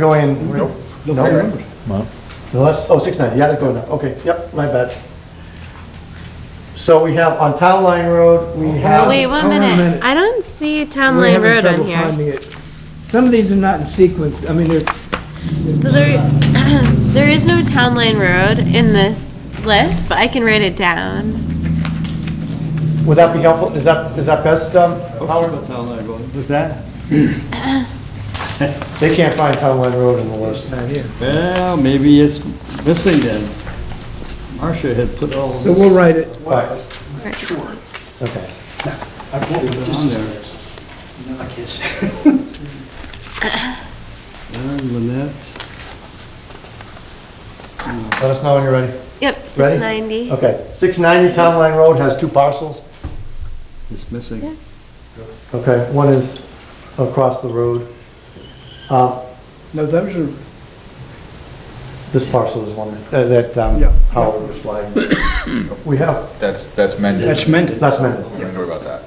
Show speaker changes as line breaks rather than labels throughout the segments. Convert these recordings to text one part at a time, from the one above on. going.
Nope.
No,
No
right?
numbers.
Well,
No, that's, oh, six ninety, yeah, they're going up, okay, yep, my bad. So we have on Town Line Road, we have.
Wait, one
Hold on a
minute.
minute.
I don't see Town
We're
Line
having
Road on
trouble
here.
finding it. Some of these are not in sequence, I mean, they're,
So there, there is no Town Line Road in this list, but I can write it down.
Would that be helpful, is that, is that best, um, Howard?
What's that?
They can't find Town Line Road in the list.
not here.
Well, maybe it's missing then. Marcia had put all of
So
this
we'll write it.
Right,
Sure.
okay.
I bought it
on there.
I can't see.
And Lynette,
Let us know when you're ready.
Yep, six
Ready?
ninety.
Okay, six ninety Town Line Road has two parcels.
it's missing.
Yeah.
Okay, one is across the road. Uh,
No, those are,
This parcel is one uh, that um,
Yeah.
Howard was flying. We have,
That's, that's mended.
That's mended.
that's amended.
Don't worry about that.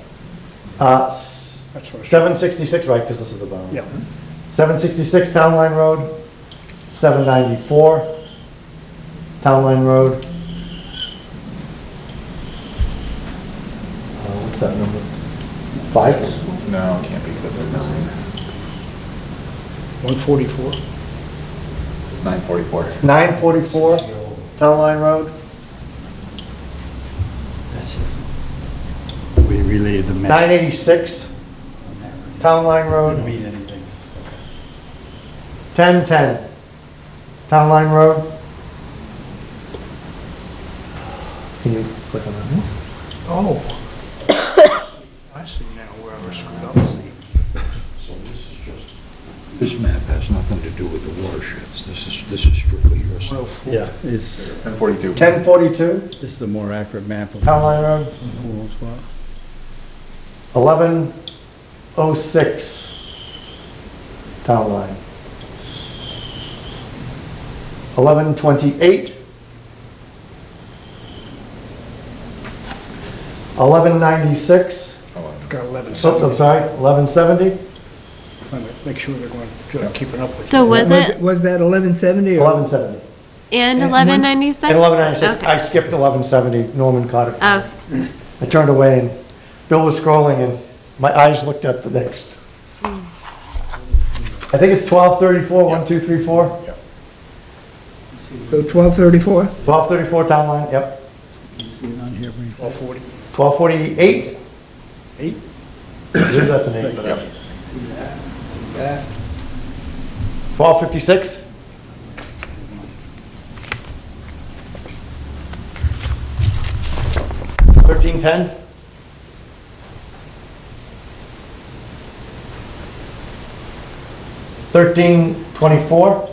Uh, s-
That's what I said.
766, right, because this is the bottom.
Yeah.
766 Town Line Road, 794 Town Line Road. Uh, What's that number? Five?
No, it can't be, because that's missing.
144.
944.
944 Town Line Road?
That's it. We relayed the map.
986 Town Line
Doesn't
Road?
mean anything.
1010 Town Line Road? Can you click on that one?
Oh. I see now where I was screwed up.
This map has nothing to do with the watersheds. This is, this is strictly your stuff.
Yeah, it's,
1042.
1042
this is a more accurate map of
Town Line Road?
who owns what.
1106 town line. 1128. 1196,
Got 11
so, Oh, I'm sorry, 1170,
Make sure they're going, good, I'm keeping up with it.
So was it
was that 1170 or?
1170.
and
And
eleven ninety-six?
And 1196, I skipped 1170, Norman caught it.
Oh,
I turned away and Bill was scrolling and my eyes looked at the next. I think it's 1234, 1234?
So 1234?
1234 town line, yep.
You see it on here, Bree?
140.
1248?
Eight.
I believe that's an eight, but yep.
See that, see that.
1256? Thirteen ten? Thirteen twenty-four?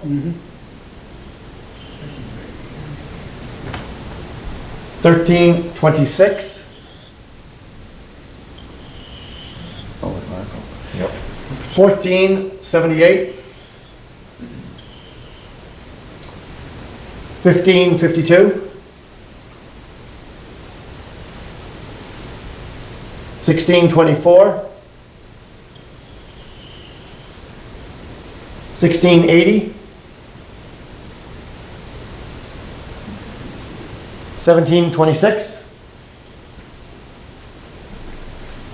Thirteen twenty-six?
Oh, it's Marco.
1478, 1552, 1624, 1680, 1726,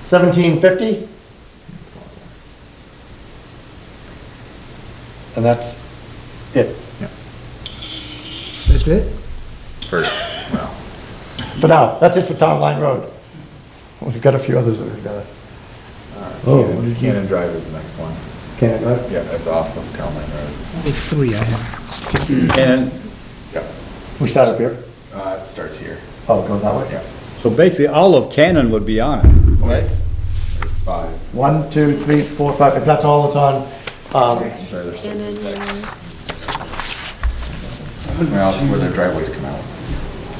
1750, and that's it.
That's it?
First, well,
For now, that's it for Town Line Road. We've got a few others that we've got. Oh, what
Cannon Cannon Drive is the next one.
Can't, right?
Yeah, that's off of Town Line Road.
Only three I have.
And, yeah,
We start up here?
uh, it starts here.
Oh, it goes that way?
Yeah.
So basically, all of Cannon would be on it, right?
Five.
One, two, three, four, five, if that's all that's on, um,
Sorry, there's six.
and then, uh,
Well, it's where their driveways come out.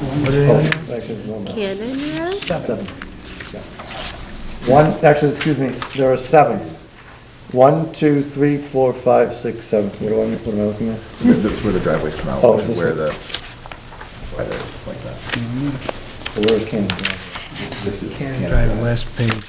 oh, actually, there's one more.
Cannon Road?
seven. One, actually, excuse me, there are seven. One, two, three, four, five, six, seven. What do I, what am I looking at?
That's where the driveways come out,
Oh, is this
where
one?
the, why they're like that.
Where is Cannon Drive?
This is
Cannon
Cannon
Drive,
Drive.
last page.